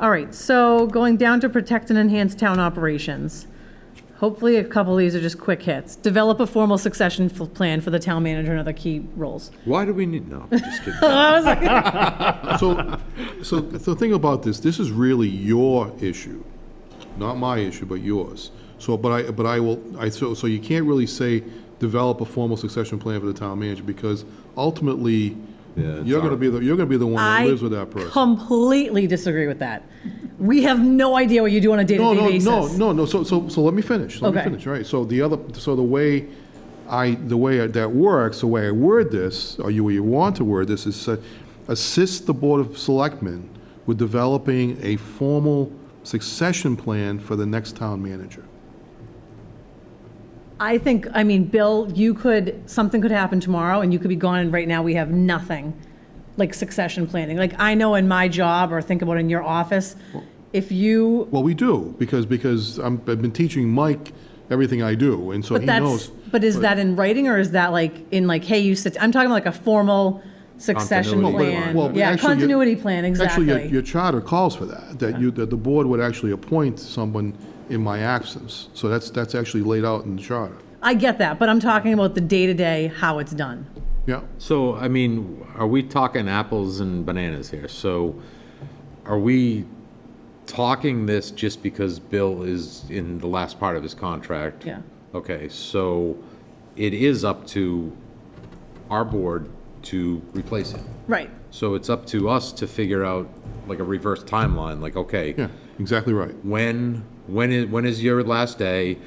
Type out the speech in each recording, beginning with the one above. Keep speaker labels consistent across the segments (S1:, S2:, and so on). S1: All right, so going down to protect and enhance town operations. Hopefully, a couple of these are just quick hits. Develop a formal succession f- plan for the town manager and other key roles.
S2: Why do we need, no, I'm just kidding.
S3: So, so the thing about this, this is really your issue, not my issue, but yours. So, but I, but I will, I, so, so you can't really say develop a formal succession plan for the town manager because ultimately,
S2: Yeah, it's
S3: you're gonna
S2: our-
S3: be the, you're gonna be the one that
S1: I
S3: lives with that person.
S1: completely disagree with that. We have no idea what you do on a
S3: No,
S1: day-to-day
S3: no,
S1: basis.
S3: no, no, no, so, so, so let me finish, let me
S1: Okay.
S3: finish, right? So the other, so the way I, the way that works, the way I word this, or you, you want to word this, is uh, assist the Board of Selectmen with developing a formal succession plan for the next town manager.
S1: I think, I mean, Bill, you could, something could happen tomorrow and you could be gone, and right now we have nothing like succession planning. Like, I know in my job, or think about in your office, if you,
S3: Well, we do, because, because I'm, I've been teaching Mike everything I do, and so
S1: but
S3: he
S1: that's,
S3: knows.
S1: but is that in writing or is that like in like, hey, you sit, I'm talking like a formal succession
S2: Continuity
S1: plan?
S2: plan.
S3: Well, but
S1: Yeah,
S3: actually, your-
S1: continuity plan,
S3: Actually, your, your
S1: exactly.
S3: charter calls for that, that you, that the board would actually appoint someone in my absence. So that's, that's actually laid out in the charter.
S1: I get that, but I'm talking about the day-to-day, how it's done.
S3: Yeah,
S2: So, I mean, are we talking apples and bananas here? So are we talking this just because Bill is in the last part of his contract?
S1: Yeah.
S2: Okay, so it is up to our board to replace him.
S1: Right.
S2: So it's up to us to figure out like a reverse timeline, like, okay,
S3: yeah, exactly right.
S2: when, when is, when is your last day?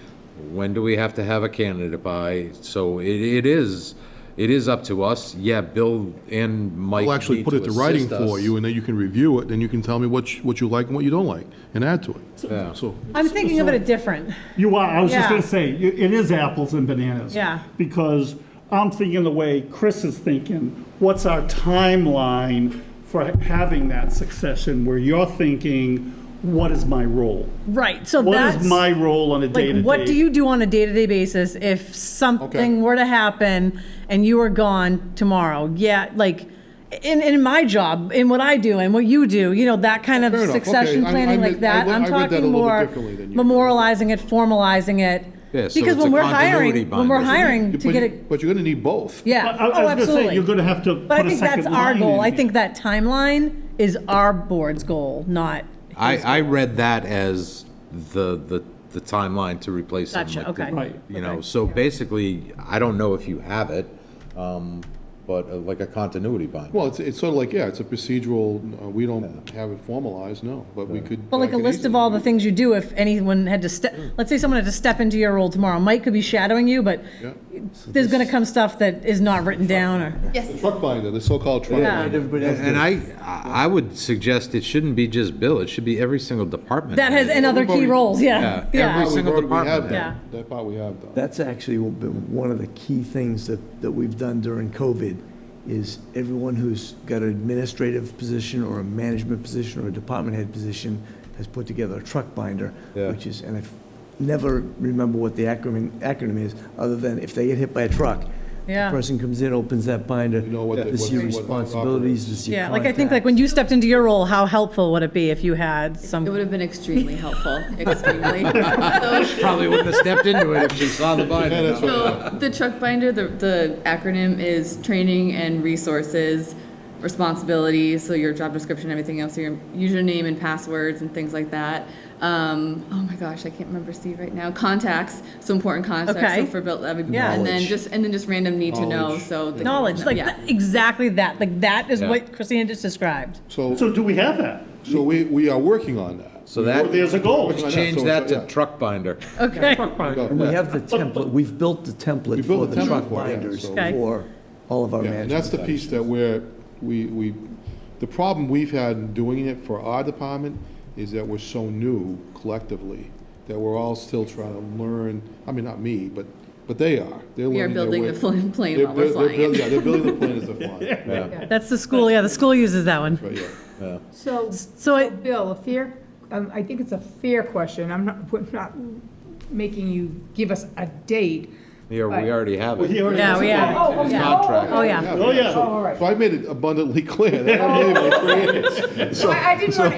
S2: When do we have to have a candidate by? So it, it is, it is up to us. Yeah, Bill and Mike
S3: I'll actually
S2: need
S3: put
S2: to
S3: it to writing
S2: assist
S3: for
S2: us.
S3: you, and then you can review it, and you can tell me what, you- what you like and what you don't like, and add to
S2: Yeah.
S3: it. So,
S1: I'm thinking of it a different.
S4: You are, I was just
S1: Yeah.
S4: gonna say, y- it is apples and bananas.
S1: Yeah.
S4: Because I'm thinking the way Chris is thinking, what's our timeline for having that succession? Where you're thinking, what is my role?
S1: Right, so
S4: What
S1: that's.
S4: is my role on a day-to-day?
S1: Like, what do you do on a day-to-day basis if something were to happen and you were gone tomorrow? Yeah, like, in, in my job, in what I do and what you do, you know, that kind of
S3: Oh, Fair enough. Okay.
S1: succession
S3: I- I
S1: planning
S3: read-
S1: like that.
S3: I
S1: I'm
S3: read that a
S1: talking
S3: little bit
S1: more
S3: differently than you.
S1: memorializing it, formalizing it.
S2: Yeah, so
S1: Because
S2: it's
S1: when
S2: a
S1: we're
S2: continuity
S1: hiring, when
S2: bind
S1: we're
S2: or something.
S1: hiring to
S3: But
S1: get
S3: you-
S1: it,
S3: But you're gonna need both.
S4: I-
S1: yeah,
S4: I- I
S1: oh,
S4: was gonna say,
S1: absolutely.
S4: you're gonna have to
S1: But I
S4: put a
S1: think that's
S4: second
S1: our
S4: line in
S1: goal. I
S4: here.
S1: think that timeline is our board's goal, not,
S2: I, I read that as the, the, the timeline to replace him.
S1: Gotcha,
S2: like the-
S1: okay.
S4: Right.
S2: You know, so basically, I don't know if you have it, um, but uh, like a continuity bind.
S3: Well, it's, it's sort of like, yeah, it's a procedural, uh, we don't have it formalized, no, but we could.
S1: Well,
S3: I
S1: like a
S3: could
S1: list of
S3: easily-
S1: all the things you do if anyone had to step, let's say someone had to step into your role tomorrow. Mike could be shadowing you, but
S3: Yeah.
S1: there's going to come stuff that is not written down or,
S3: The Truck binder, the so-called truck
S1: Yeah.
S3: binder.
S5: Everybody else
S2: And I, I would suggest it shouldn't be just Bill, it should be every single department.
S1: that has,
S2: head.
S1: and other key
S3: Everybody-
S1: roles, yeah.
S2: Yeah,
S3: That
S2: every
S3: we've
S2: single
S3: already- we have
S2: department
S3: done.
S1: head.
S3: That part we have done.
S5: That's actually been one of the key things that, that we've done during COVID, is everyone who's got an administrative position or a management position or a department head position has put together a truck binder,
S2: Yeah.
S5: which is, and I never remember what the acronym, acronym is, other than if they get hit by a truck,
S1: Yeah.
S5: the person comes in, opens that binder,
S3: know what the-
S5: this
S3: what-
S5: is your
S3: what
S5: responsibilities, this is your
S1: Yeah, like I think
S5: contact.
S1: like when you stepped into your role, how helpful would it be if you had
S6: It
S1: some,
S6: would have been extremely helpful, extremely. So,
S2: Probably wouldn't have stepped into it if she saw the binder.
S6: so the truck binder, the, the acronym is training and resources, responsibilities, so your job description, everything else, your username and passwords and things like that. Um, oh my gosh, I can't remember Steve right now. Contacts, so important contacts,
S1: Okay.
S6: so for built,
S1: Yeah.
S6: and then
S5: Knowledge.
S6: just, and then just random need to know,
S3: Knowledge.
S6: so. the-
S1: knowledge, like,
S6: Yeah.
S1: that- exactly that. Like, that is
S2: Yeah.
S1: what Christina just described.
S3: So,
S4: So do we have that?
S3: so we, we are working on that.
S2: So that,
S4: There's a goal.
S2: change
S3: So-
S2: that
S3: yeah.
S2: to truck binder.
S1: Okay,
S5: And we have the template, we've built the
S3: built
S5: template for
S3: the
S5: the
S3: template
S5: truck
S3: for it, yeah,
S5: binders
S3: so-
S1: Okay.
S5: for all of our
S3: Yeah,
S5: management.
S3: and that's the piece that we're, we, we, the problem we've had in doing it for our department is that we're so new collectively, that we're all still trying to learn, I mean, not me, but, but they are. They're
S6: We are
S3: learning their
S6: building
S3: way.
S6: the fl- plane
S3: They're-
S6: while we're
S3: they're- they're
S6: flying it.
S3: building- Yeah, they're building the plane as they're flying,
S1: that's the school, yeah, the school uses that one.
S3: but yeah.
S7: So,
S1: so I-
S7: so Bill, a fair, um, I think it's a fair question. I'm not, we're not making you give us a date.
S2: Yeah, we already have it.
S1: Yeah, we
S7: Oh,
S1: are.
S7: oh,
S2: It's
S7: okay.
S2: contract.
S1: Oh, yeah.
S4: Oh, yeah.
S3: So-
S7: Oh, all right.
S6: Oh.
S3: So I made it abundantly clear, that I don't really have my three
S7: So I I didn't want to